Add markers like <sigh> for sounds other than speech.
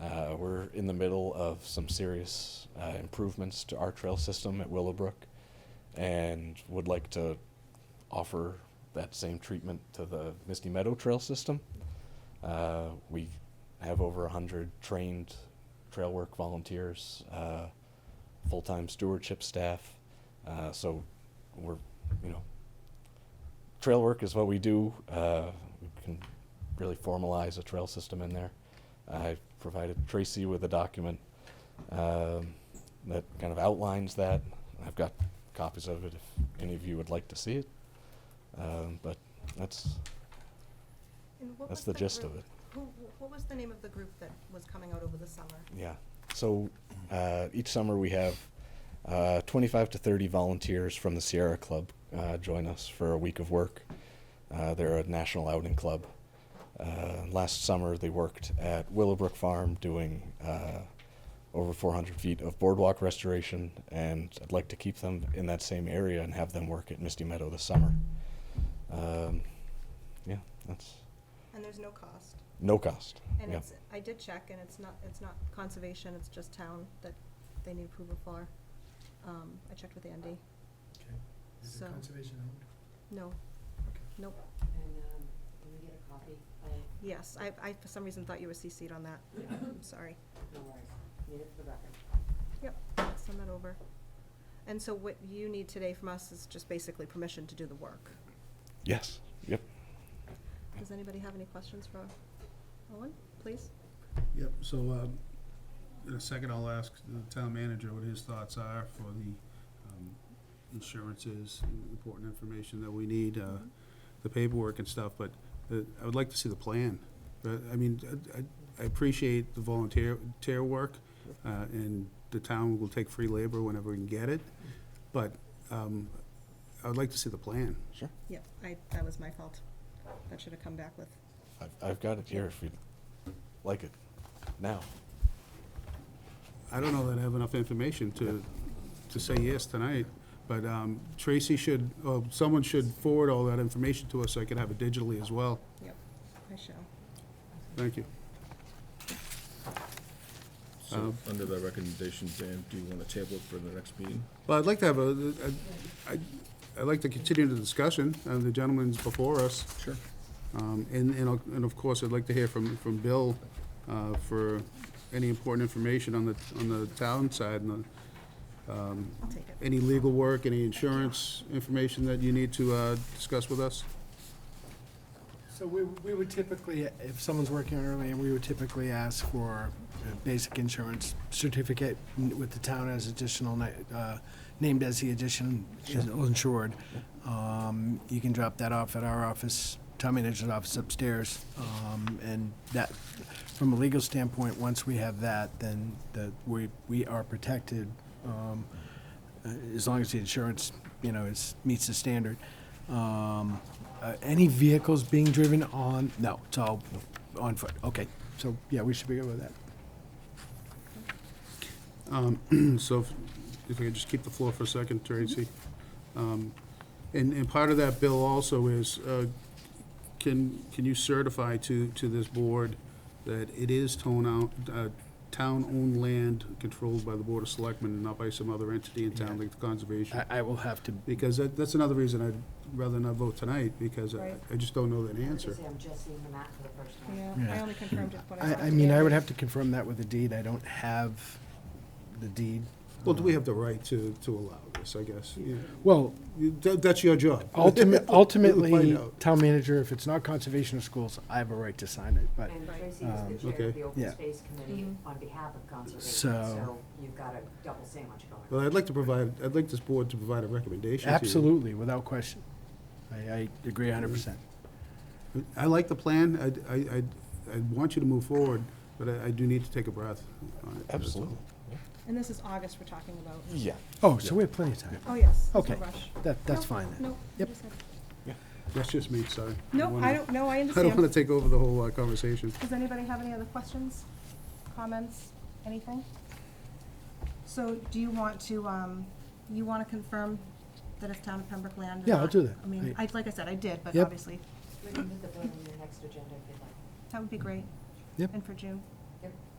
Uh, we're in the middle of some serious uh, improvements to our trail system at Willowbrook and would like to offer that same treatment to the Misty Meadow Trail system. Uh, we have over 100 trained trail work volunteers, uh, full time stewardship staff. Uh, so we're, you know, trail work is what we do. Uh, we can really formalize a trail system in there. I provided Tracy with a document um, that kind of outlines that. I've got copies of it if any of you would like to see it. Um, but that's And what that's was the gist of group- it. Who, wh- what was the name of the group that was coming out over the summer? Yeah. So uh, each summer we have uh, 25 to 30 volunteers from the Sierra Club uh, join us for a week of work. Uh, they're a national outing club. Uh, last summer they worked at Willowbrook Farm doing uh, over 400 feet of boardwalk restoration, and I'd like to keep them in that same area and have them work at Misty Meadow this summer. Um, yeah, that's And there's no cost. no cost. And yeah. it's, I did check, and it's not, it's not conservation, it's just town that they need approval for. Um, I checked with Andy. Okay, is So- it conservation owned? No, Okay. nope, And, um, can we get a copy of, yes, I, I for some reason thought you were CC'd on that. <laughs> I'm sorry. no worries, need it for the record. Yep, send that over. And so what you need today from us is just basically permission to do the work. Yes. Yep. Does anybody have any questions for Owen, please? Yep, so, um, in a second, I'll ask the town manager what his thoughts are for the, um, insurances, important information that we need, uh, the paperwork and stuff, but, uh, I would like to see the plan. But, I mean, I, I- I appreciate the volunteer, tear work, uh, and the town will take free labor whenever we can get it, but, um, I would like to see the plan. Sure. Yep, I, that was my fault. That should have come back with I've, I've got it here if you'd like it now. I don't know that I have enough information to, to say yes tonight, but um, Tracy should, oh, someone should forward all that information to us so I can have it digitally as well. Yep, I shall. Thank you. So, under the recommendation, Dan, do you want to table it for the next meeting? Well, I'd like to have a, a- I'd, I'd like to continue the discussion, uh, the gentleman's before us, Sure. um, and, and of- and of course, I'd like to hear from, from Bill uh, for any important information on the, on the town side and the, I'll take it. any legal work, any insurance information that you need to uh, discuss with us. So we, we would typically, if someone's working early, and we would typically ask for a basic insurance certificate n- with the town as additional, na- uh, named as the addition is insured. Um, You can drop that off at our office, town manager's office upstairs. Um, And that, from a legal standpoint, once we have that, then the, we, we are protected um, uh, as long as the insurance, you know, is, meets the standard. Um, uh, any vehicles being driven on, no, it's all on foot, okay, so, yeah, we should be good with that. Um, So if- if I could just keep the floor for a second, Tracy. Um, And, and part of that bill also is, uh, can, can you certify to, to this board that it is town out, uh, town-owned land controlled by the Board of Selectmen and not by some other entity in town like the Conservation? I, I will have to, Because that, that's another reason I'd rather not vote tonight, because I, Right. I just don't know that Like I answer. say, I'm just seeing the map for the first time. Yeah, I Yeah. only confirmed with what I I, talked I mean, to I would Andy. have to confirm that with the deed, I don't have the deed. Well, do we have the right to, to allow this, I guess? Yeah. <laughs> Well, You- that- That's your job. Oh, ultimate, ultimately, Find out. town manager, if it's not conservation of schools, I have a right to sign it, but, And Tracy is the chair Um, okay. of the open Yeah. space committee on behalf of conservation, So- so you've got a double sandwich going. Well, I'd like to provide, I'd like this board to provide a recommendation to you. absolutely, without question. I, I agree hundred percent. I like the plan, I'd- I, I, I want you to move forward, but I I do need to take a breath on it. that's all. Absolutely. And this is August we're talking about. Yeah. Oh, so we have plenty of time, Oh, yes, there's no okay, rush. that, that's No, fine then. No. I Yep. just had- That's just me, sorry. No, I wanna- don't, no, I <laughs> I don't want understand. to take over the whole uh, conversation. Does anybody have any other questions, comments, anything? So do you want to, um, you want to confirm that it's town of Pembroke land? or Yeah, not? I'll do that. I mean, I- I, like I said, I did, but Yep. obviously, We can put the vote on your next agenda if you'd like. that would be great. Yep. And for June. Yep.